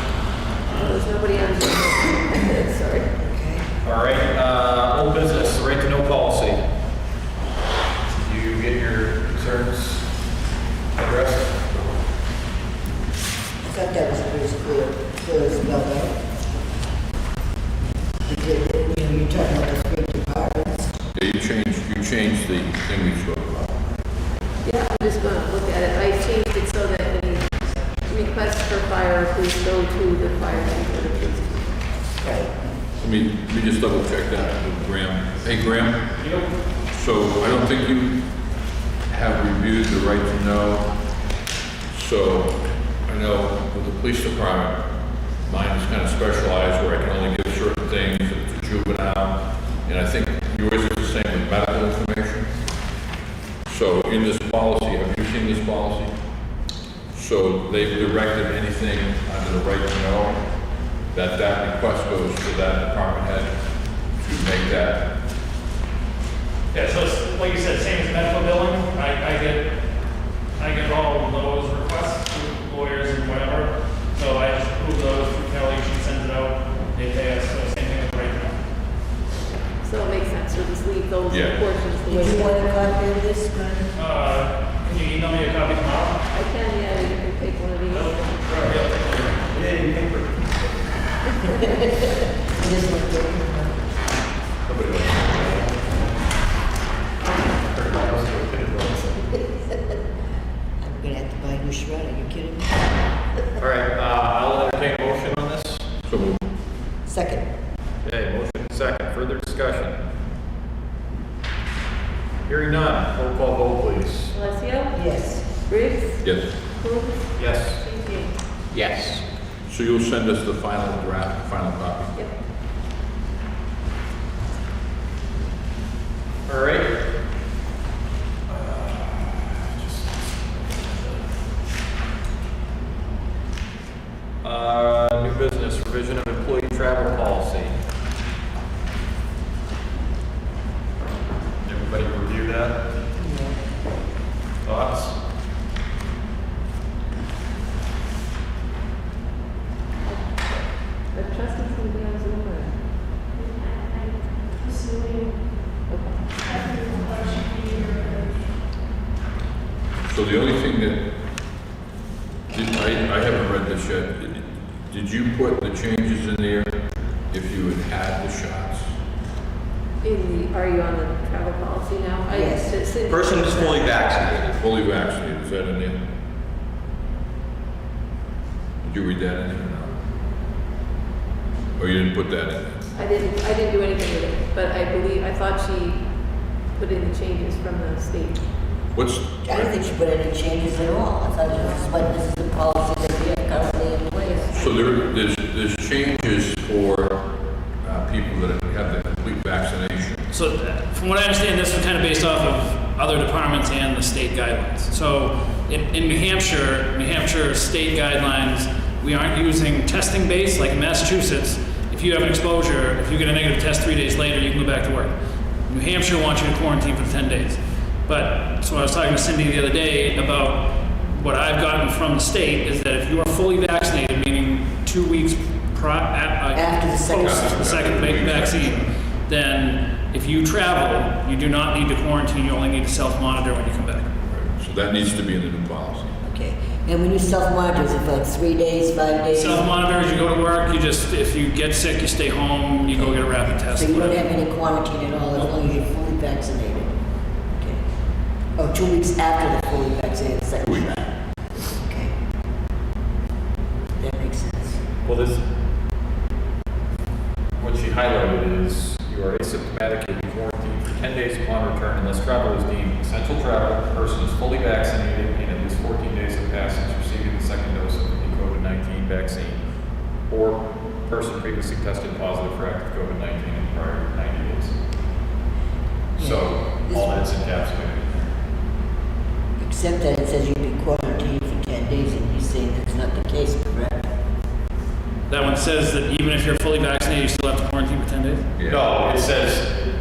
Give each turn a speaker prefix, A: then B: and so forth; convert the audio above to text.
A: uh,
B: changed the thing we spoke about.
C: Yeah, I'm just gonna look at it. I changed it so that any requests for fire or police go to the fire chief or the police chief.
B: Let me, let me just double check that with Graham. Hey, Graham? So I don't think you have reviewed the right to know. So I know with the police department, mine is kind of specialized where I can only give certain things to juvenile. And I think yours is the same with medical information. So in this policy, have you seen this policy? So they've directed anything under the right to know, that that request goes to that department head to make that.
D: Yeah, so it's, like you said, same as medical billing, I, I get, I get all of those requests through lawyers and whatever. So I just approve those through Kelly, she sends it out, they pay us, so same thing with right now.
C: So it makes sense to just leave those
B: Yeah.
C: portions the
E: Do
C: way
E: you
C: they
E: want
C: are.
E: to copy of this, Glenn?
D: Uh, can you email me a copy tomorrow?
C: I can, yeah, you can take one of these.
D: Sure, yeah.
E: It doesn't look good. I'm gonna have to buy a new shredder, are you kidding me?
A: All right, uh, I'll entertain a motion on this.
B: So moved.
E: Second,
A: Okay, motion second, further discussion. Hearing none, roll call vote please.
C: Alessio?
E: yes.
C: Briggs?
B: Yes.
C: Coombs?
A: Yes.
C: G.G.
A: Yes.
B: So you'll send us the final draft, final copy?
C: Yep.
A: All right. Uh, new business, revision of employee travel policy. Everybody review that? Thoughts?
C: Are trustees gonna be on Zoom or? Okay.
B: So the only thing that, did- I, I haven't read this yet. Did- Did you put the changes in there if you had had the shots?
C: In the, are you on the travel policy now? I-
E: Yes.
C: it's in-
A: Person is fully vaccinated.
B: Fully vaccinated, is that in there? Did you read that in there or not? Or you didn't put that in there?
C: I didn't, I didn't do anything with it, but I believe, I thought she put in the changes from the state.
B: What's?
E: I don't think she put any changes at all, I thought it was, but this is the policy that we have currently in place.
B: So there, there's, there's changes for uh, people that have the complete vaccination.
D: So uh, from what I understand, this was kind of based off of other departments and the state guidelines. So in, in New Hampshire, New Hampshire state guidelines, we aren't using testing based like in Massachusetts. If you have an exposure, if you get a negative test three days later, you can go back to work. New Hampshire wants you to quarantine for 10 days. But so I was talking to Cindy the other day about what I've gotten from the state is that if you are fully vaccinated, meaning two weeks pri- at, uh,
E: After the second
D: post
B: shot.
D: the second va- vaccine, then if you travel, you do not need to quarantine, you only need to self-monitor when you come back.
B: So that needs to be in the new policy.
E: Okay, and when you self-monitor, is it like three days, five days?
D: Self-monitor is you go to work, you just, if you get sick, you stay home, you go get a rapid
E: So
D: test.
E: you don't
D: whatever.
E: have any quarantine at all, as long as you're fully vaccinated? Okay. Oh, two weeks after the fully vaccinated second
B: Two weeks.
E: shot? Okay. That makes sense.
A: Well, this, what she highlighted is you are asymptomatic and you quarantine for 10 days upon return unless travel is deemed essential travel, the person is fully vaccinated, and at least 14 days have passed since receiving the second dose of the COVID-19 vaccine, or person previously tested positive for active COVID-19 in the prior 90 days. So, all that's encapsulated.
E: Except that it says you'd be quarantined for ten days, and he's saying that's not the case, correct?
D: That one says that even if you're fully vaccinated, you still have to quarantine for 10 days?
B: Yeah.
A: No, it says